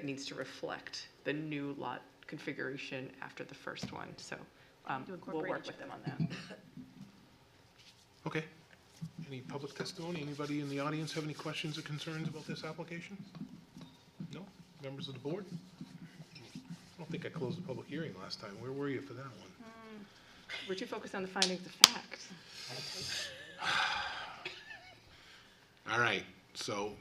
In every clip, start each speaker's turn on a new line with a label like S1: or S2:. S1: It needs to reflect the new lot configuration after the first one, so um,
S2: To
S1: we'll
S2: incorporate
S1: work
S2: each
S1: with them on that.
S3: Okay. Any public testimony? Anybody in the audience have any questions or concerns about this application? No? Members of the board? I don't think I closed the public hearing last time. Where were you for that one?
S1: We're too focused on the findings of fact.
S3: All right, so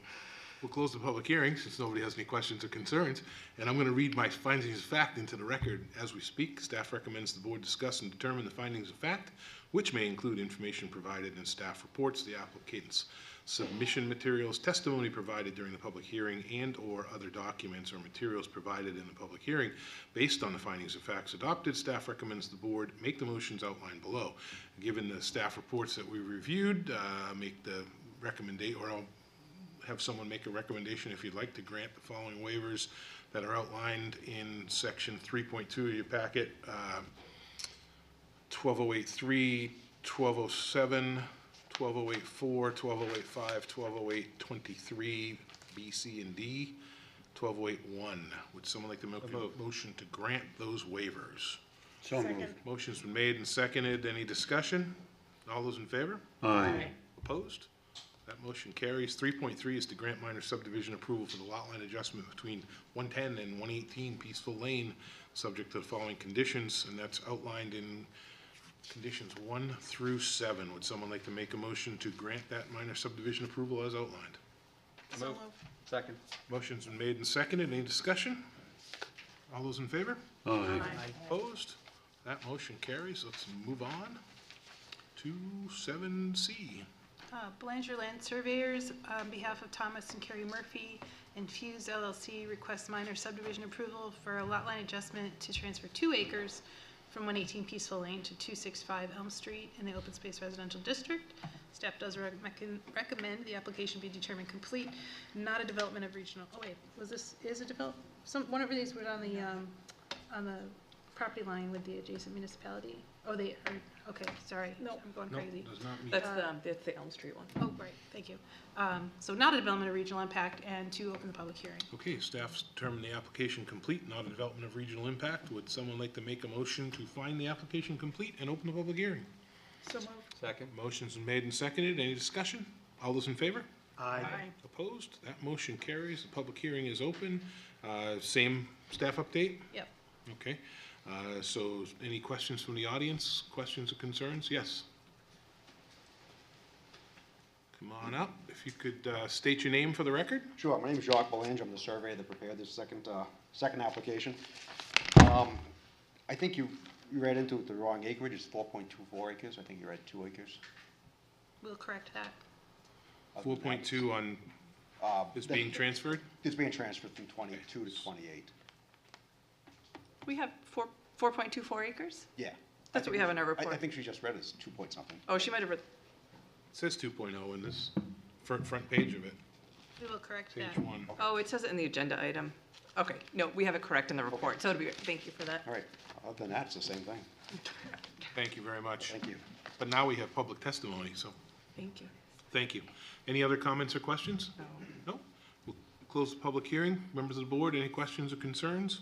S3: we'll close the public hearing since nobody has any questions or concerns. And I'm going to read my findings of fact into the record as we speak. Staff recommends the board discuss and determine the findings of fact, which may include information provided in staff reports, the applicant's submission materials, testimony provided during the public hearing, and/or other documents or materials provided in the public hearing. Based on the findings of facts adopted, staff recommends the board make the motions outlined below. Given the staff reports that we reviewed, uh, make the recommendation, or I'll have someone make a recommendation if you'd like to grant the following waivers that are outlined in section three point two of your packet, uh, 12083, 1207, 12084, 12085, 120823, B, C, and D, 12081. Would someone like to make a motion to grant those waivers?
S4: So moved.
S3: Motion's been made and seconded. Any discussion? All those in favor?
S4: Aye.
S3: Opposed? That motion carries. Three point three is to grant minor subdivision approval for the lot line adjustment between one ten and one eighteen Peaceful Lane, subject to the following conditions, and that's outlined in conditions one through seven. Would someone like to make a motion to grant that minor subdivision approval as outlined?
S5: Move. Second.
S3: Motion's been made and seconded. Any discussion? All those in favor?
S4: Aye.
S3: Opposed? That motion carries. Let's move on to seven C.
S2: Uh, Belanger Land Surveyors, on behalf of Thomas and Carrie Murphy, Infuse LLC requests minor subdivision approval for a lot line adjustment to transfer two acres from 118 Peaceful Lane to 265 Elm Street in the Open Space Residential District. Staff does rec- mecon- recommend the application be determined complete, not a development of regional, oh wait, was this, is a develop, some, one of these was on the, um, on the property line with the adjacent municipality? Oh, they, are- okay, sorry, I'm going
S3: No,
S2: crazy.
S3: does not meet.
S1: That's the, um, that's the Elm Street one.
S2: Oh, right, thank you. Um, So not a development of regional impact, and to open the public hearing.
S3: Okay, staff's determined the application complete, not a development of regional impact. Would someone like to make a motion to find the application complete and open the public hearing?
S2: So moved.
S5: Second.
S3: Motion's been made and seconded. Any discussion? All those in favor?
S5: Aye.
S3: Opposed? That motion carries. The public hearing is open. Uh, Same staff update?
S2: Yep.
S3: Okay. Uh, So any questions from the audience? Questions or concerns? Yes? Come on up. If you could uh, state your name for the record?
S6: Sure, my name is Jacques Belanger, I'm the surveyor that prepared this second, uh, second application. Um, I think you, you read into it the wrong acreage, it's four point two four acres, I think you read two acres.
S2: We'll correct that.
S3: Four point two on,
S6: Uh,
S3: is being transferred?
S6: It's being transferred from twenty-two to twenty-eight,
S1: We have four, 4.24 acres?
S6: yeah.
S1: That's what we have in our
S6: I, I
S1: report.
S6: think she just read it as two point something.
S1: Oh, she might have, re-
S3: It Says two oh in this front, front page of it,
S2: We will correct
S3: page
S2: that.
S3: one.
S1: oh, it says it in the agenda item. Okay, no, we have it correct in the report, so it'll be, thank you for that.
S6: All right, other than that, it's the same thing,
S3: Thank you very much.
S6: thank you.
S3: But now we have public testimony, so
S1: Thank you.
S3: thank you. Any other comments or questions?
S1: No.
S3: No? We'll close the public hearing. Members of the board, any questions or concerns?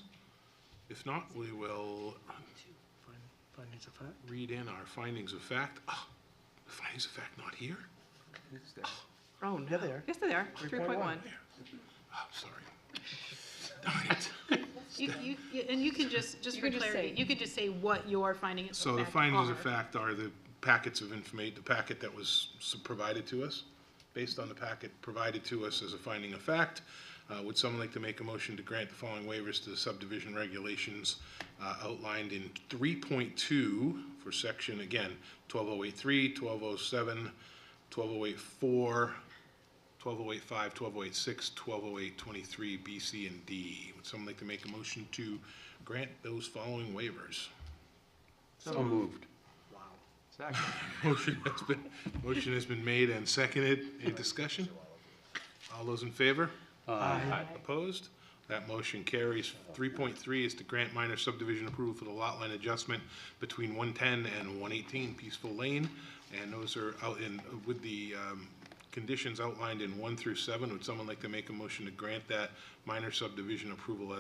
S3: If not, we will
S7: Findings of fact.
S3: read in our findings of fact. Ah, the findings of fact not here?
S1: Oh, no.
S7: they are.
S1: Yes, they are,
S7: 3.1.
S1: 3.1.
S3: Oh, sorry. Darn it.
S2: You, you, you- and you can just, just
S1: You
S2: for
S1: can just
S2: clarity,
S1: say-
S2: you could just say what your finding is.
S3: So the findings of fact are the packets of information, the packet that was s- provided to us, based on the packet provided to us as a finding of fact. Uh, Would someone like to make a motion to grant the following waivers to the subdivision regulations uh, outlined in 3.2 for section, again, 12083, 1207, 12084, 12085, 12086, 12023, B, C, and D? Would someone like to make a motion to grant those following waivers?
S4: So moved.
S5: Second.
S3: Motion has been, motion has been made and seconded. Any discussion? All those in favor? Aye. Opposed? That motion carries. Three point three is to grant minor subdivision approval for the lot line adjustment between one ten and one eighteen Peaceful Lane. And those are out in, with the, um, conditions outlined in one through seven. Would someone like to make a motion to grant that minor subdivision approval as